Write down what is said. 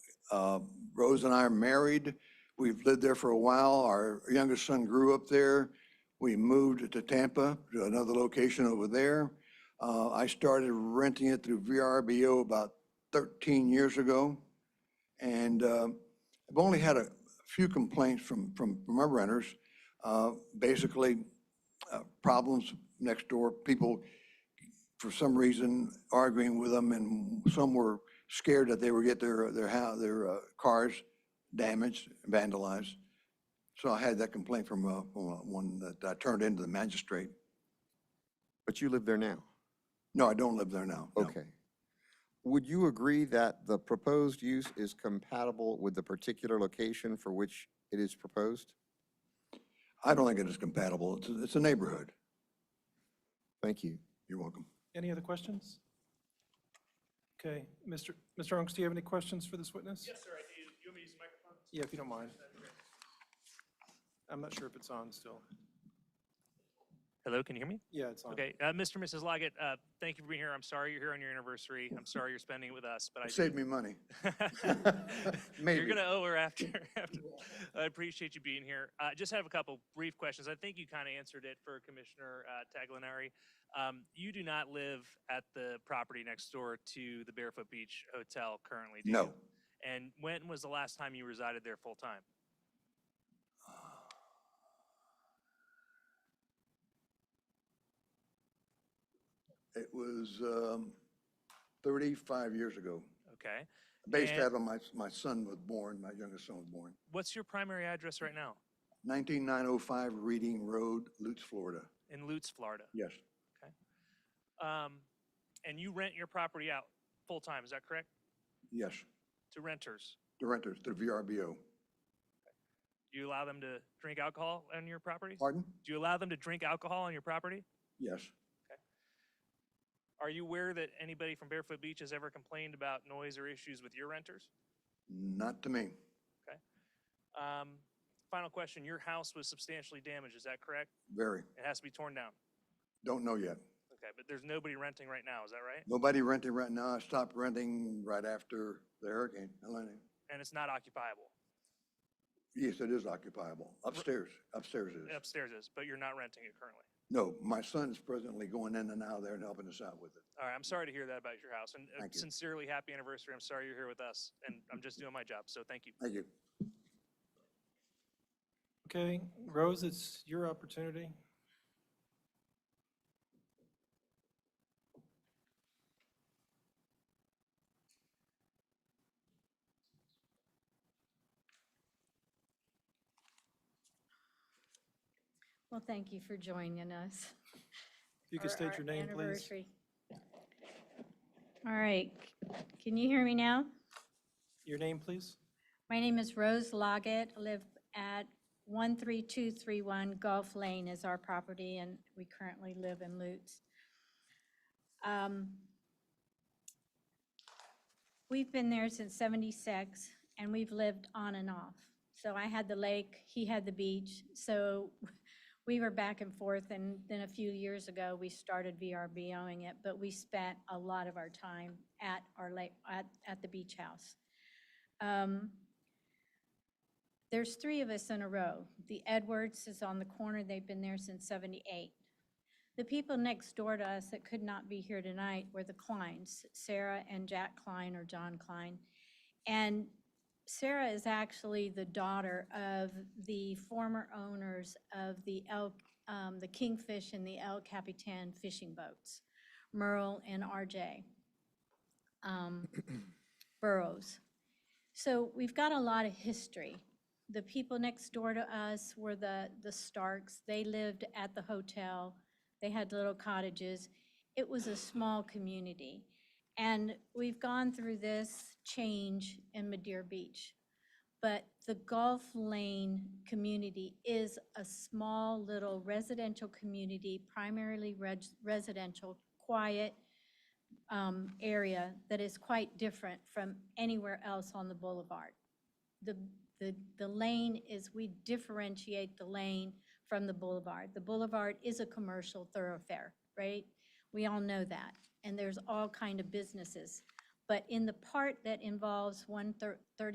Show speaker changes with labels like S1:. S1: Uh, Rose and I are married. We've lived there for a while. Our youngest son grew up there. We moved to Tampa, to another location over there. Uh, I started renting it through VRBO about 13 years ago. And uh, I've only had a few complaints from, from from our renters. Uh, Basically, uh, problems next door, people for some reason arguing with them and some were scared that they would get their, their, hou- their uh, cars damaged, vandalized. So I had that complaint from uh, from, uh, one that I turned into the magistrate.
S2: But you live there now?
S1: No, I don't live there now. no.
S2: Okay. Would you agree that the proposed use is compatible with the particular location for which it is proposed?
S1: I don't think it is compatible. It's, a- it's a neighborhood.
S2: Thank you.
S1: You're welcome.
S3: Any other questions? Okay, Mr. Mr. Unks, do you have any questions for this witness?
S4: Yes, sir, I do. You want me to use the microphone?
S3: Yeah, if you don't mind. I'm not sure if it's on still.
S4: Hello, can you hear me?
S3: Yeah, it's on.
S4: Okay, uh, Mr. and Mrs. Loggett, uh, thank you for being here. I'm sorry you're here on your anniversary. I'm sorry you're spending it with us, but I do.
S1: Saved me money.
S4: You're
S1: Maybe.
S4: gonna owe her after. after- I appreciate you being here. I just have a couple brief questions. I think you kind of answered it for Commissioner uh, Taglinari. Um, You do not live at the property next door to the Barefoot Beach Hotel currently, do you?
S1: No.
S4: And when was the last time you resided there full-time?
S1: It was um, 35 years ago.
S4: Okay.
S1: Based
S4: And-
S1: out of my, my son was born, my youngest son was born.
S4: What's your primary address right now?
S1: 19905 Reading Road, Lutz, Florida.
S4: In Lutz, Florida?
S1: Yes,
S4: Um, and you rent your property out full-time, is that correct?
S1: yes.
S4: To renters?
S1: The renters, the VRBO.
S4: Do you allow them to drink alcohol on your property?
S1: Pardon?
S4: Do you allow them to drink alcohol on your property?
S1: Yes.
S4: Are you aware that anybody from Barefoot Beach has ever complained about noise or issues with your renters?
S1: Not to me.
S4: Um, final question, your house was substantially damaged, is that correct?
S1: Very.
S4: It has to be torn down.
S1: Don't know yet.
S4: Okay, but there's nobody renting right now, is that right?
S1: Nobody renting right now. I stopped renting right after the hurricane, Helene.
S4: And it's not occupiable.
S1: Yes, it is occupiable. Upstairs, upstairs is.
S4: Upstairs is, but you're not renting it currently.
S1: No, my son's presently going in and out of there and helping us out with it.
S4: All right, I'm sorry to hear that about your house, and uh,
S1: Thank you.
S4: sincerely, happy anniversary. I'm sorry you're here with us, and I'm just doing my job, so thank you.
S1: Thank you.
S3: Okay, Rose, it's your opportunity.
S5: Well, thank you for joining us.
S3: If you could
S5: for
S3: state
S5: our
S3: your name, please.
S5: anniversary. All right, can you hear me now?
S3: Your name, please?
S5: My name is Rose Loggett, I live at 13231 Gulf Lane is our property, and we currently live in Lutz. Um, We've been there since 76, and we've lived on and off. So I had the lake, he had the beach, so we were back and forth, and then a few years ago, we started VRBOing it, but we spent a lot of our time at our lake, at, at the beach house. Um, There's three of us in a row. The Edwards is on the corner, they've been there since 78. The people next door to us that could not be here tonight were the Kleins, Sarah and Jack Klein or John Klein. And Sarah is actually the daughter of the former owners of the El, um, the Kingfish and the El Capitan fishing boats, Merle and RJ um, Burrows. So we've got a lot of history. The people next door to us were the, the Starks. They lived at the hotel. They had little cottages. It was a small community. And we've gone through this change in Madeira Beach. But the Gulf Lane community is a small little residential community, primarily reg- residential, quiet, um, area that is quite different from anywhere else on the boulevard. The, the, the lane is, we differentiate the lane from the boulevard. The boulevard is a commercial thoroughfare, right? We all know that, and there's all kind of businesses. But in the part that involves one thirty